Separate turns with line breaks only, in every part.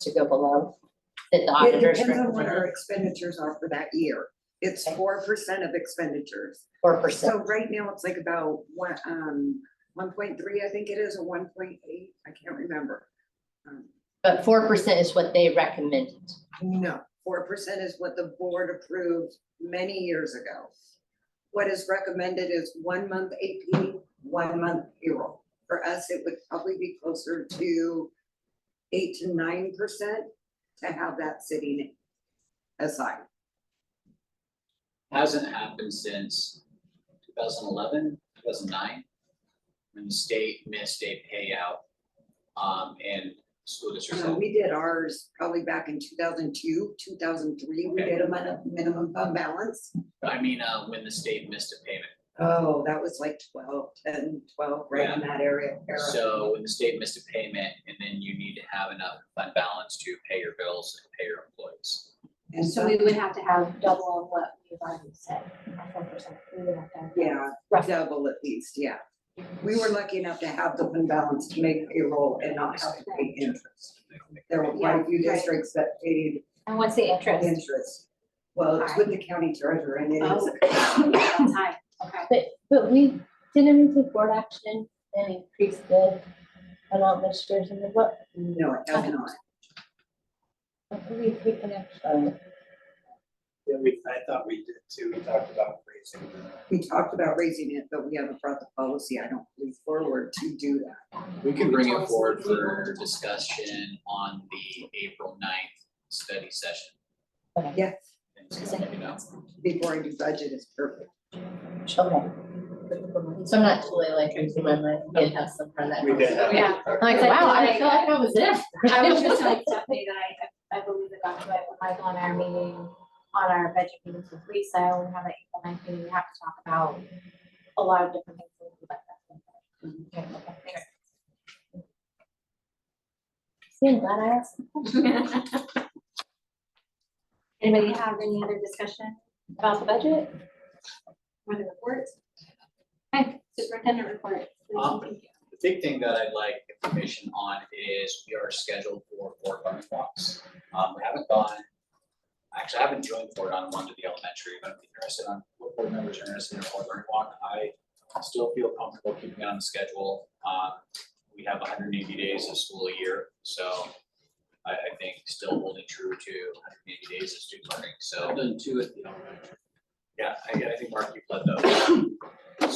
to go below that the
It
auditors
depends on what our
recommended,
expenditures are for that year. It's
Okay.
four percent of expenditures.
four percent.
So right now, it's like about one, um, one point three, I think it is, or one point eight, I can't remember. Um,
But four percent is what they recommended.
No, four percent is what the board approved many years ago. What is recommended is one month AP, one month payroll. For us, it would probably be closer to eight to nine percent to have that sitting aside.
hasn't happened since 2011, 2009, when the state missed a payout, um, and school districts.
Uh, we did ours probably back in two thousand two, two thousand three, we
Okay.
did a min- minimum fund balance.
I mean, uh, when the state missed a payment.
Oh, that was like 12, 10, 12, right in that area. era.
So when the state missed a payment, and then you need to have enough fund balance to pay your bills and pay your employees.
And
So
so,
we would have to have double of what we've already said, our four percent, we would have to. have
yeah,
Roughly,
double at least, yeah. We were lucky enough to have the fund balance to make payroll and not have to pay interest.
They don't make-
There were quite a few
Yeah, right.
districts that paid
and what's the interest?
interest. Well, it's with the county treasurer and it is,
Oh, that's high, Oh, okay.
But, but we, didn't we take board action and increase the amount this year's in the book?
no, it does not.
We take an action.
Yeah, we, I thought we did too, we talked about raising the,
We talked about raising it, but we haven't brought the policy, I don't believe, forward to do that.
We can bring it forward for discussion on the April 9th study session.
Yes,
And so, you know,
before I do budget is perfect.
Okay. So I'm not totally like losing my mind, we did have some kind of that.
we did have.
Yeah.
I'm like, wow, I feel like I was there.
I was just telling Stephanie that I, I believe that that's what Michael and our meeting, on our budget meetings with Lisa, when we have an April ninth meeting, we have to talk about a lot of different things. that we would like to have. Okay, okay, thanks.
See, I'm glad I asked.
Anybody have any other discussion about the budget? Or the reports? Okay, superintendent report.
Um, The big thing that I'd like information on is we are scheduled for board learning walks. Um, we haven't gone, actually, I haven't joined board on one to the elementary, but I'm interested on what board members are interested in a board learning walk. I still feel comfortable keeping it on the schedule. Um, we have hundred and eighty days of school a year, so I, I think still holding true to hundred and eighty days of student learning, so. Done two at the elementary. Yeah, I, I think Mark, you've led those.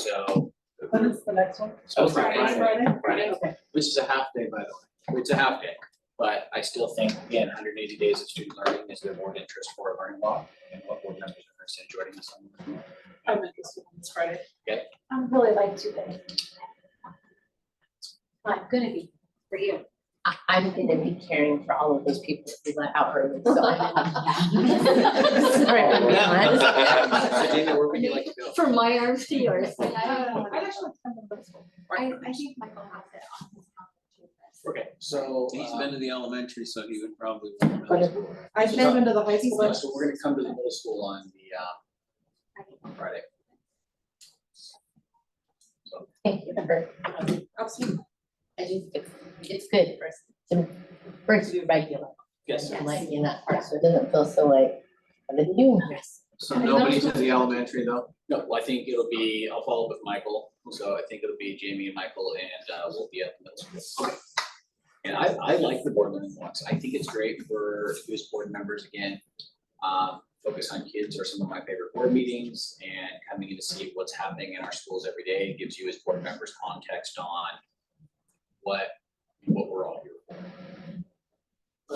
So.
When is the next one?
So
Next Friday?
Friday,
Okay.
which is a half day, by the way, it's a half day. But I still think, again, hundred and eighty days of student learning is the more interest for a learning law and what board members are interested in joining us on.
I meant this one, it's Friday.
I'm really like two days. Well, I'm gonna be for you.
I, I'm gonna be caring for all of those people who let out early, so I'm. Sorry, I'm not.
Virginia, where would you like to go?
From my arms to yours. I,
I'd actually like to come to the first one.
I think Michael has it on his calendar
Okay, so.
He's
uh,
been to the elementary, so he would probably.
I've
So-
never been to the high school.
So so we're gonna come to the middle school on the uh
too,
on Friday.
Thank you for,
Absolutely.
I just, it's, it's good for, us to, for it to be regular.
Yes,
And like in that part, so it doesn't feel so like, the new dress.
So nobody's at the elementary though?
no, well, I think it'll be, I'll follow up with Michael, so I think it'll be Jamie and Michael and uh we'll be up in middle school. And I I like the board learning walks, I think it's great for US board members again. Um, focus on kids are some of my favorite board meetings and coming in to see what's happening in our schools every day gives you as board members context on what what we're all here for.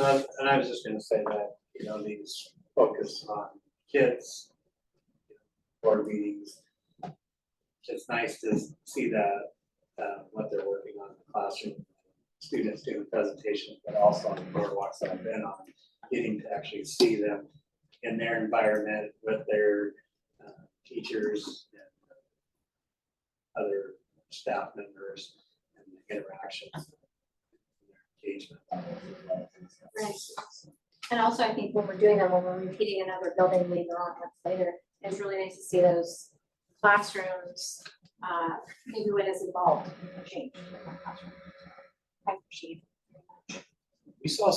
Um, and I was just gonna say that, you know, these focus on kids, board meetings. It's nice to see that, uh, what they're working on in the classroom, students doing presentations, but also on the boardwalks that I've been on, getting to actually see them in their environment with their, uh, teachers and uh, other staff members and interactions. Engagement. levels as well.
Right. And also, I think when we're doing them, when we're repeating another building later on, months later, it's really nice to see those classrooms, uh, maybe what is involved in change in that classroom. I appreciate it.
We saw